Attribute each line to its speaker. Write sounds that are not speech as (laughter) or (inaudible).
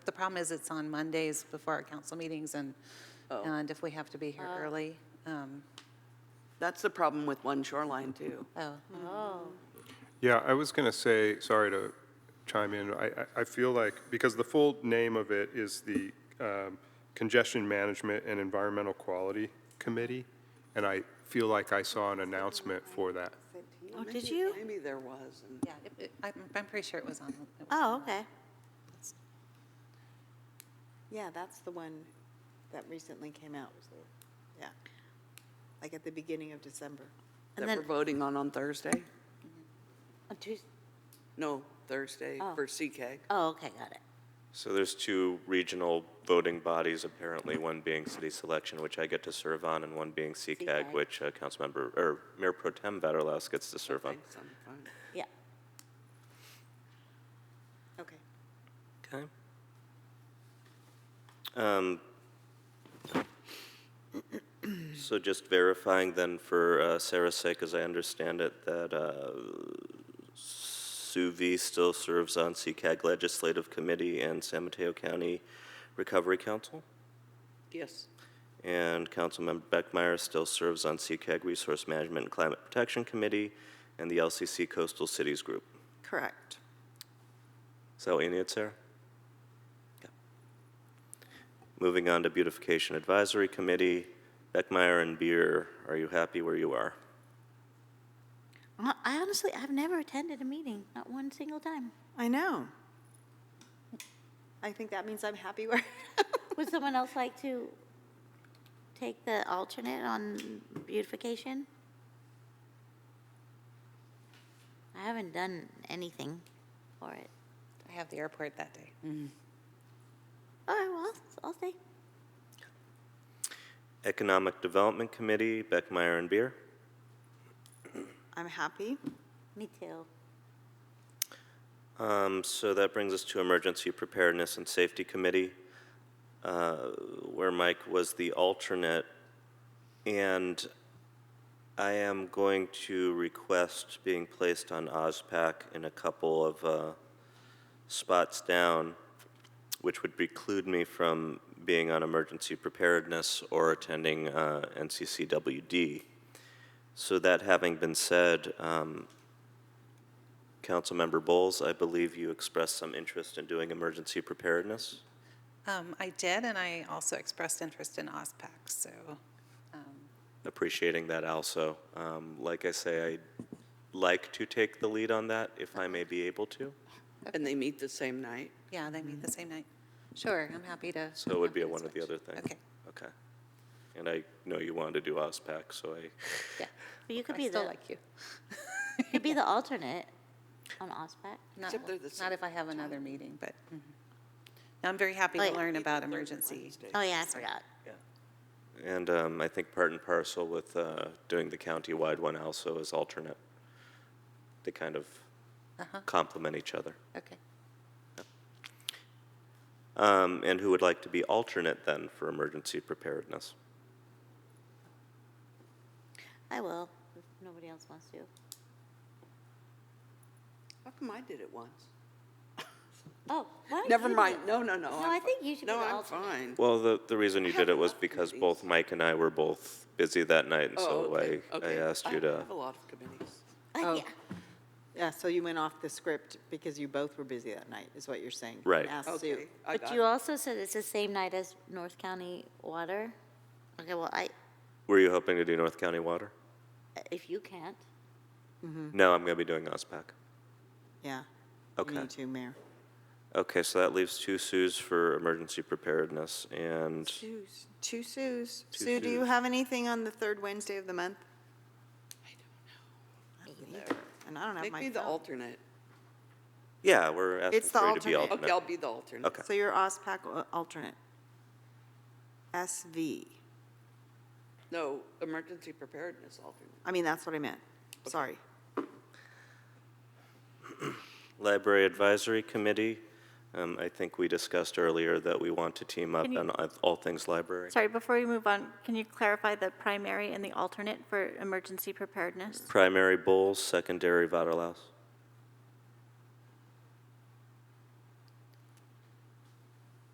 Speaker 1: The problem is it's on Mondays before our council meetings and,
Speaker 2: Oh.
Speaker 1: and if we have to be here
Speaker 3: Oh.
Speaker 1: early, um,
Speaker 2: That's the problem with One Shoreline, too.
Speaker 1: oh,
Speaker 4: Yeah, I was going to say, sorry to chime in, I, I- I feel like, because the full name of it is the um, Congestion Management and Environmental Quality Committee, and I feel like I saw an announcement for that.
Speaker 5: Oh, did you?
Speaker 2: Maybe there was. and-
Speaker 1: yeah, it- it- I'm, I'm pretty sure it was on. it was-
Speaker 5: Oh, okay. Yeah, that's the one that recently came out. Yeah. Like at the beginning of December.
Speaker 2: That
Speaker 3: And
Speaker 2: we're
Speaker 3: then,
Speaker 2: voting on on Thursday?
Speaker 3: on Tues-
Speaker 2: No, Thursday
Speaker 3: Oh.
Speaker 2: for CCAG.
Speaker 3: oh, okay, got it.
Speaker 6: So there's two regional voting bodies, apparently, one being city selection, which I get to serve on, and one being
Speaker 3: CCAG.
Speaker 6: CCAG, which uh, Councilmember, or Mayor Pro Tem Vaterlaus gets to serve on.
Speaker 2: Thanks, I'm fine.
Speaker 3: Yeah.
Speaker 5: Okay.
Speaker 6: Okay. Um, So just verifying then for uh, Sarah's sake, as I understand it, that uh, Sue V still serves on CCAG Legislative Committee and San Mateo County Recovery Council?
Speaker 2: Yes.
Speaker 6: And Councilmember Beckmeyer still serves on CCAG Resource Management and Climate Protection Committee and the LCC Coastal Cities Group.
Speaker 5: Correct.
Speaker 6: Is that what you need, Sarah? Yeah. Moving on to Beautification Advisory Committee, Beckmeyer and Beer, are you happy where you are?
Speaker 3: Hon- I honestly, I've never attended a meeting, not one single time.
Speaker 5: I know. I think that means I'm happy (laughs) where.
Speaker 3: Would someone else like to take the alternate on beautification? I haven't done anything for it.
Speaker 1: I have the airport that day.
Speaker 3: All right, well, I'll- I'll stay.
Speaker 6: Economic Development Committee, Beckmeyer and Beer.
Speaker 5: I'm happy.
Speaker 3: Me too.
Speaker 6: Um, so that brings us to Emergency Preparedness and Safety Committee, uh, where Mike was the alternate. And I am going to request being placed on OSPAC in a couple of uh, spots down, which would preclude me from being on Emergency Preparedness or attending uh, NCCWD. So that having been said, um, Councilmember Bowles, I believe you expressed some interest in doing emergency preparedness.
Speaker 1: Um, I did, and I also expressed interest in OSPAC, so,
Speaker 6: Appreciating that also. Um, Like I say, I'd like to take the lead on that if I may be able to.
Speaker 2: And they meet the same night?
Speaker 1: yeah, they meet
Speaker 3: Mm.
Speaker 1: the same night. Sure, I'm happy to.
Speaker 6: So it would be a
Speaker 1: happy to
Speaker 6: one or the
Speaker 1: switch.
Speaker 6: other thing.
Speaker 1: Okay,
Speaker 6: Okay. And I know you wanted to do OSPAC, so I,
Speaker 1: yeah.
Speaker 3: But you could
Speaker 1: I
Speaker 3: be
Speaker 1: still
Speaker 3: the,
Speaker 1: like you.
Speaker 3: you could be the alternate on OSPAC.
Speaker 1: Not,
Speaker 2: Except they're the
Speaker 1: not
Speaker 2: same
Speaker 1: if I have another meeting, but mhm. Now, I'm very happy to
Speaker 3: Like-
Speaker 1: learn about
Speaker 2: Third
Speaker 1: emergency.
Speaker 2: Wednesday.
Speaker 3: Oh, yeah, I forgot.
Speaker 6: and um, I think part and parcel with uh, doing the countywide one also as alternate. They kind of complement each other.
Speaker 1: Okay.
Speaker 6: Um, And who would like to be alternate then for emergency preparedness?
Speaker 3: I will, if nobody else wants to. (laughs)
Speaker 2: How come I did it once?
Speaker 3: Oh, why don't
Speaker 2: Never
Speaker 3: you do
Speaker 2: mind,
Speaker 3: it?
Speaker 2: no, no, no.
Speaker 3: No,
Speaker 2: I'm
Speaker 3: I
Speaker 2: fi-
Speaker 3: think you should be
Speaker 2: No,
Speaker 3: the
Speaker 2: I'm
Speaker 3: alternate.
Speaker 2: fine.
Speaker 6: Well, the, the reason you
Speaker 2: I
Speaker 6: did
Speaker 2: have
Speaker 6: it was
Speaker 2: enough
Speaker 6: because
Speaker 2: committees.
Speaker 6: both Mike and I were both busy that night, and
Speaker 2: Oh,
Speaker 6: so I,
Speaker 2: okay,
Speaker 6: I
Speaker 2: okay.
Speaker 6: asked you
Speaker 2: I
Speaker 6: to.
Speaker 2: have a lot of committees.
Speaker 3: Uh,
Speaker 5: Oh.
Speaker 3: yeah.
Speaker 5: Yeah, so you went off the script because you both were busy that night, is what you're saying.
Speaker 6: Right.
Speaker 5: Ask Sue.
Speaker 2: Okay, I
Speaker 3: But
Speaker 2: got
Speaker 3: you
Speaker 2: it.
Speaker 3: also said it's the same night as North County Water. Okay, well, I,
Speaker 6: Were you hoping to do North County Water?
Speaker 3: if you can't,
Speaker 2: Mm-hmm.
Speaker 6: No, I'm going to be doing OSPAC.
Speaker 5: Yeah.
Speaker 6: Okay.
Speaker 5: You too, Mayor.
Speaker 6: Okay, so that leaves two Sues for emergency preparedness, and
Speaker 5: Two, s- two Sues.
Speaker 6: Two
Speaker 5: Sue, do you
Speaker 6: Sues.
Speaker 5: have anything on the third Wednesday of the month? I don't know. And I don't have
Speaker 2: Make
Speaker 5: my
Speaker 2: me the
Speaker 5: phone.
Speaker 2: alternate.
Speaker 6: yeah, we're asking
Speaker 5: It's the
Speaker 6: for you to be
Speaker 5: alternate.
Speaker 6: alternate.
Speaker 2: Okay, I'll be the alternate.
Speaker 6: Okay.
Speaker 5: So you're OSPAC al- alternate. SV.
Speaker 2: No, emergency preparedness alternate.
Speaker 5: I mean, that's what I meant. Sorry.
Speaker 6: Library Advisory Committee, um, I think we discussed earlier that we want to team up
Speaker 7: Can you-
Speaker 6: on all- all things library.
Speaker 7: Sorry, before we move on, can you clarify the primary and the alternate for emergency preparedness?
Speaker 6: Primary Bowles, secondary Vaterlaus.